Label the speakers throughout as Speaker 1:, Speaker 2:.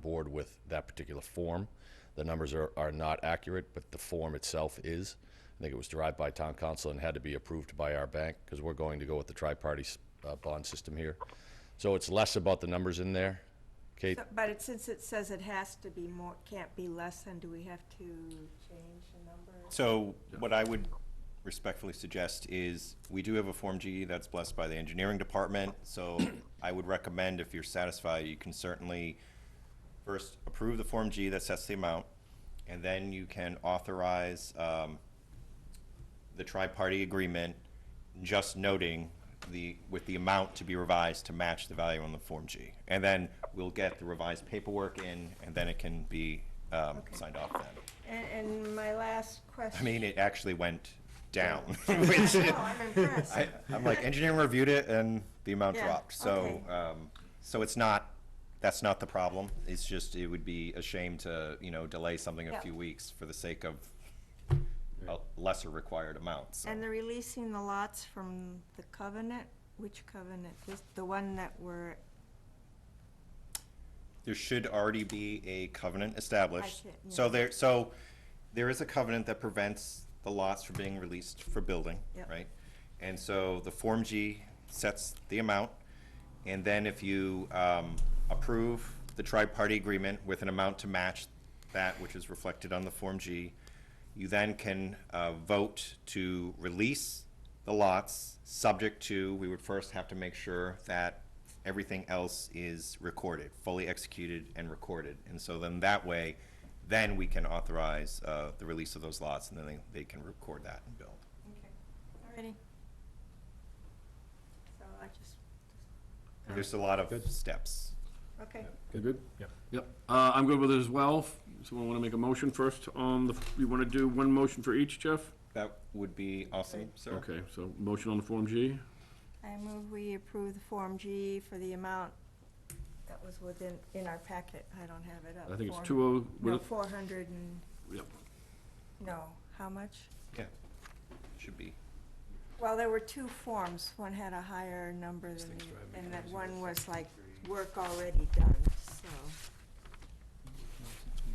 Speaker 1: forward with that particular form. The numbers are, are not accurate, but the form itself is. I think it was derived by town council and had to be approved by our bank because we're going to go with the tri-party s- uh, bond system here. So it's less about the numbers in there, Kate.
Speaker 2: So- But it, since it says it has to be more, can't be less than, do we have to change the number?
Speaker 3: So what I would respectfully suggest is, we do have a Form G that's blessed by the engineering department, so I would recommend if you're satisfied, you can certainly first approve the Form G that sets the amount, and then you can authorize um, the tri-party agreement, just noting the, with the amount to be revised to match the value on the Form G. And then we'll get the revised paperwork in, and then it can be um,
Speaker 2: Okay.
Speaker 3: signed off then.
Speaker 2: And, and my last question.
Speaker 3: I mean, it actually went down.
Speaker 2: I
Speaker 3: which-
Speaker 2: know, I'm impressed.
Speaker 3: I, I'm like, engineering reviewed it and the amount
Speaker 2: Yeah,
Speaker 3: dropped, so,
Speaker 2: okay.
Speaker 3: um, so it's not, that's not the problem. It's just, it would be a shame to, you know, delay something a
Speaker 2: Yeah.
Speaker 3: few weeks for the sake of a lesser required amount, so.
Speaker 2: And they're releasing the lots from the covenant, which covenant? This, the one that were,
Speaker 3: There should already be a covenant established.
Speaker 2: should- yeah.
Speaker 3: So there, so there is a covenant that prevents the lots from being released for building,
Speaker 2: Yep.
Speaker 3: right? And so the Form G sets the amount, and then if you um, approve the tri-party agreement with an amount to match that which is reflected on the Form G, you then can uh, vote to release the lots, subject to, we would first have to make sure that everything else is recorded, fully executed and recorded. And so then that way, then we can authorize uh, the release of those lots, and then they, they can record that and build.
Speaker 2: already? So I just,
Speaker 3: There's a lot of
Speaker 4: Good.
Speaker 3: steps.
Speaker 2: okay.
Speaker 4: You good? Yeah.
Speaker 5: Yep, uh, I'm good with it as well. Someone wanna make a motion first on the, you wanna do one motion for each, Jeff?
Speaker 3: That would be awesome, sir.
Speaker 5: Okay, so motion on the Form G,
Speaker 2: I move we approve the Form G for the amount that was within, in our packet. I don't have it up.
Speaker 5: I think
Speaker 2: Four-
Speaker 5: it's two oh,
Speaker 2: No,
Speaker 5: what,
Speaker 2: four hundred and,
Speaker 5: yep,
Speaker 2: no, how much?
Speaker 3: Yeah, should be.
Speaker 2: Well, there were two forms. One had a higher number than, the- and that one was like work already done, so.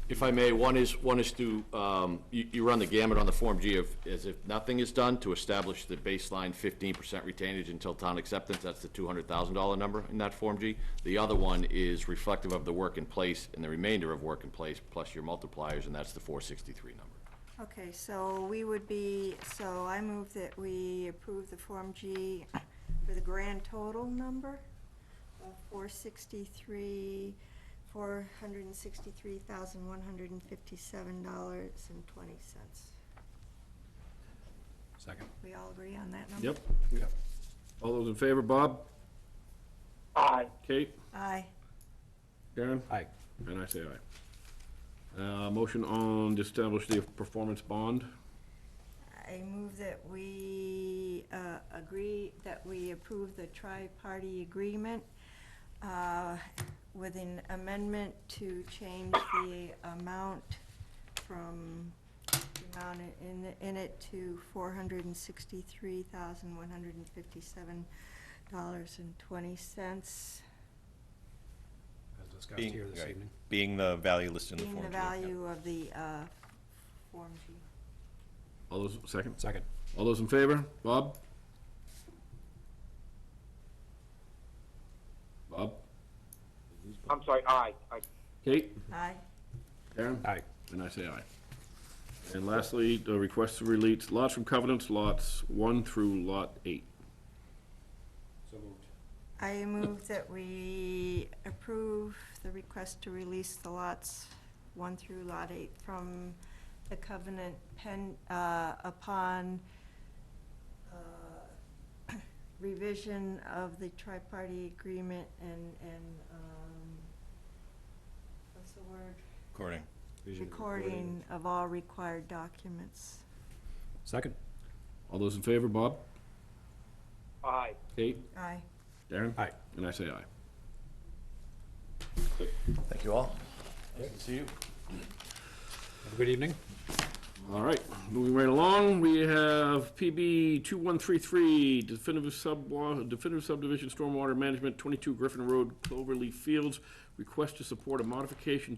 Speaker 6: If I may, one is, one is to, um, you you run the gamut on the Form G of, as if nothing is done, to establish the baseline 15% retainage until town acceptance, that's the $200,000 number in that Form G. The other one is reflective of the work in place and the remainder of work in place, plus your multipliers, and that's the 463 number.
Speaker 2: Okay, so we would be, so I move that we approve the Form G for the grand total number of four sixty-three, four hundred and sixty-three thousand, one hundred and fifty-seven dollars and twenty cents.
Speaker 4: Second.
Speaker 2: We all agree on that number?
Speaker 5: yep. All those in favor, Bob? Aye. Kate?
Speaker 2: Aye.
Speaker 5: Karen?
Speaker 4: Aye.
Speaker 5: And I say aye. Uh, motion on to establish the performance bond,
Speaker 2: I move that we uh, agree, that we approve the tri-party agreement uh, with an amendment to change the amount from, the amount in, in it to four hundred and sixty-three thousand, one hundred and fifty-seven dollars and twenty cents,
Speaker 4: As discussed
Speaker 3: Being-
Speaker 4: here this
Speaker 3: right,
Speaker 4: evening.
Speaker 3: Being the value listed in the
Speaker 2: being
Speaker 3: Form G.
Speaker 2: the
Speaker 3: yeah.
Speaker 2: value of the uh, Form G.
Speaker 5: all those, second,
Speaker 4: Second.
Speaker 5: all those in favor, Bob? Bob?
Speaker 7: I'm sorry, aye, aye.
Speaker 5: Kate?
Speaker 2: Aye.
Speaker 5: Karen?
Speaker 4: Aye.
Speaker 5: And I say aye. And lastly, the request to release lots from covenants, lots one through lot eight.
Speaker 4: So moved.
Speaker 2: I move that we approve the request to release the lots one through lot eight from the covenant pen, uh, upon, uh, revision of the tri-party agreement and, and, um, what's the word?
Speaker 3: Recording.
Speaker 2: Recording of all required documents.
Speaker 4: Second.
Speaker 5: All those in favor, Bob?
Speaker 7: aye.
Speaker 5: Kate?
Speaker 2: Aye.
Speaker 5: Darren?
Speaker 4: Aye.
Speaker 5: And I say aye.
Speaker 3: Thank you all.
Speaker 4: Have a good evening.
Speaker 5: All right, moving right along, we have PB 2133, definitive sub, definitive subdivision stormwater management, 22 Griffin Road, Cloverleaf Fields. Request to support a modification